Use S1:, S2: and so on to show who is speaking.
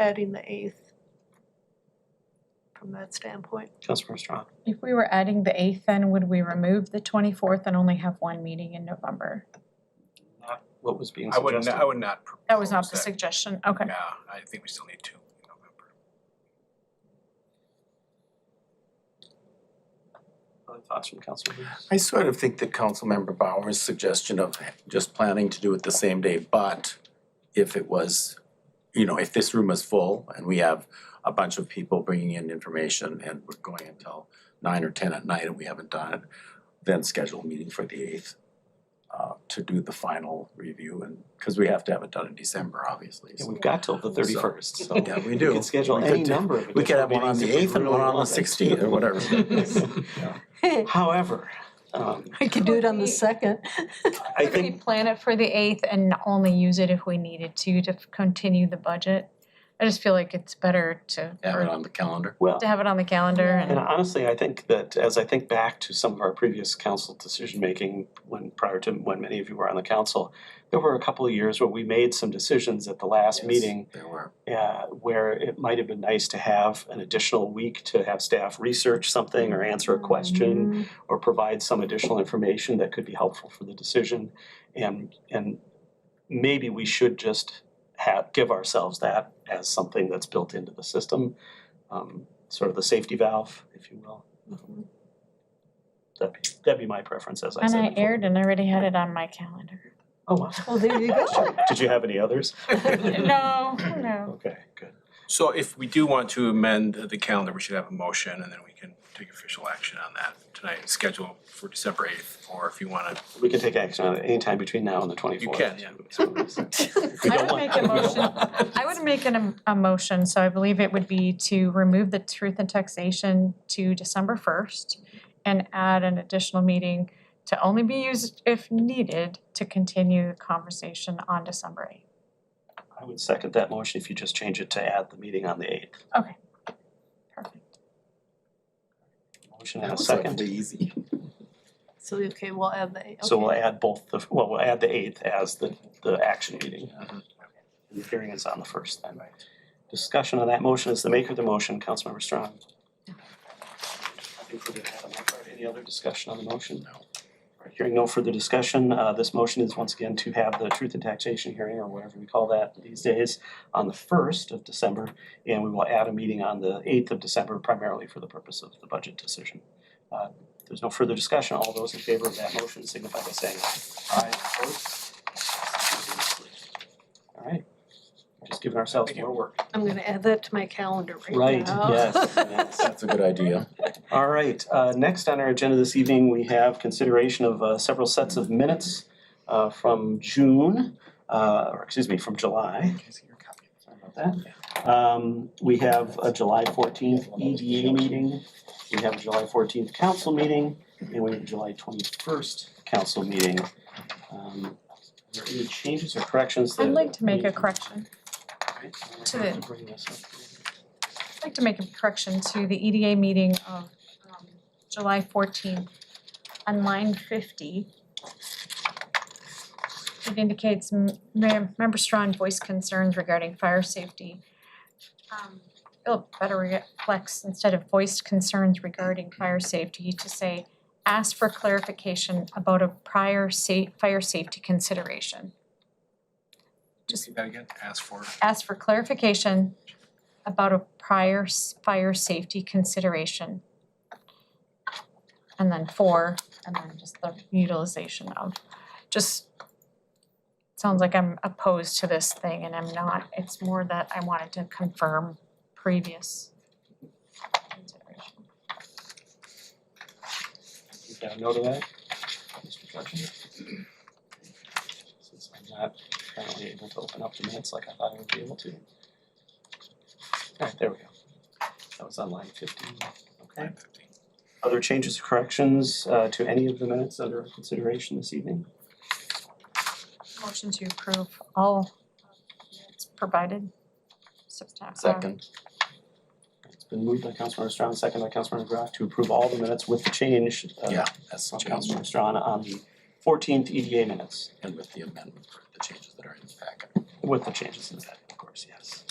S1: adding the eighth from that standpoint.
S2: Councilmember Strawn.
S3: If we were adding the eighth, then would we remove the twenty-fourth and only have one meeting in November?
S2: Not what was being
S4: I wouldn't,
S2: suggested.
S4: I would not propose
S3: That was not the
S4: that.
S3: suggestion, okay.
S4: Yeah, I think we still need two in November.
S2: Other thoughts from council members?
S5: I sort of think that Councilmember Bauer's suggestion of just planning to do it the same day, but if it was, you know, if this room is full and we have a bunch of people bringing in information and we're going until nine or ten at night and we haven't done it, then schedule a meeting for the eighth uh to do the final review and, because we have to have it done in December, obviously,
S2: Yeah,
S5: so.
S2: we've got till the thirty-first, so.
S5: Yeah, we do.
S2: We could schedule
S5: We
S2: any
S5: could-
S2: number of
S5: We could have
S2: additional
S5: one on the
S2: meetings if we
S5: eighth and
S2: really
S5: one on the
S2: wanted.
S5: sixteenth or whatever.
S2: However, um,
S1: We could do it on the second.
S2: I
S3: Could we
S2: think,
S3: plan it for the eighth and only use it if we needed to, to continue the budget? I just feel like it's better to,
S5: Have it
S3: or
S5: on the calendar.
S2: well,
S3: to have it on the calendar
S2: and
S3: and,
S2: honestly, I think that as I think back to some of our previous council decision-making when, prior to when many of you were on the council, there were a couple of years where we made some decisions at the last
S5: Yes,
S2: meeting
S5: There were.
S2: uh, where it might have been nice to have an additional week to have staff research something or answer a
S3: Mm-hmm.
S2: question or provide some additional information that could be helpful for the decision. And, and maybe we should just have, give ourselves that as something that's built into the system, um, sort of the safety valve, if you will.
S1: Mhm.
S2: That'd be, that'd be my preference, as I
S3: Mm-hmm. and
S2: said.
S3: I
S2: before.
S3: aired and I already had it on my calendar.
S2: Oh, wow.
S1: Well, there you go.
S2: Did you have any others?
S3: No, no.
S2: Okay, good.
S4: So if we do want to amend the calendar, we should have a motion and then we can take official action on that tonight, schedule for December eighth, or if you wanna.
S2: We can take action on it anytime between now and the twenty-fourth.
S4: can, yeah.
S3: I would make a motion, I would make an, am- a motion, so I believe it would be to remove the truth and taxation to December first and add an additional meeting to only be used if needed to continue the conversation on December eighth.
S2: I would second that motion if you just change it to add the meeting on the eighth.
S3: Perfect.
S2: Motion and a
S5: That was like
S2: second.
S5: the easy.
S1: So, okay, we'll add the eighth.
S2: So we'll
S1: Okay.
S2: add both the, well, we'll add the eighth as the, the action meeting. And the hearing is on the first then. Discussion on that motion is the maker of the motion, Councilmember Strong. Included that on that part. Any other discussion on the motion? No. Hearing no further discussion, uh, this motion is once again to have the truth and taxation hearing or whatever we call that these days on the first of December. And we will add a meeting on the eighth of December primarily for the purpose of the budget decision. Uh, there's no further discussion. All those in favor of that motion signify by saying aye. Opposed? All right, just giving ourselves more work.
S1: I'm gonna add that to my calendar right now.
S2: Right, yes, yes.
S5: That's a good idea.
S2: All right, uh, next on our agenda this evening, we have consideration of uh, several sets of minutes uh, from June, uh, or excuse me, from July. Sorry about that. Um, We have a July 14th EDA meeting, we have a July 14th council meeting, and we have a July 21st council meeting. Um, Are there any changes or corrections that?
S3: I'd like to make a
S2: we-
S3: correction,
S2: Right, so we'll
S3: to
S2: have
S3: the-
S2: bring this up.
S3: I'd like to make a correction to the EDA meeting of um, July fourteenth on line fifty. It indicates m- mem- member Strawn voiced concerns regarding fire safety. Um, It'll better reflects instead of voiced concerns regarding fire safety to say asked for clarification about a prior sa- fire safety consideration. Just
S4: See that again, ask for.
S3: asked for clarification about a prior s- fire safety consideration. And then four, and then just the utilization of, just sounds like I'm opposed to this thing and I'm not, it's more that I wanted to confirm previous consideration.
S2: You got a note of that? Mr. Fletcher? Since I'm not currently able to open up the minutes like I thought I would be able to. Alright, there we go. That was on line fifteen, okay. Other changes, or corrections uh to any of the minutes under consideration this evening?
S3: Motion to approve all minutes provided. Septem- uh,
S5: Second.
S2: It's been moved by Councilmember Strawn, second by Councilmember Graff to approve all the minutes with the change uh
S5: Yeah, that's
S2: from
S5: what counts
S2: Councilmember Strawn on the fourteenth EDA minutes.
S5: and with the amendment, the changes that are in the packet.
S2: With the changes in that, of course, yes.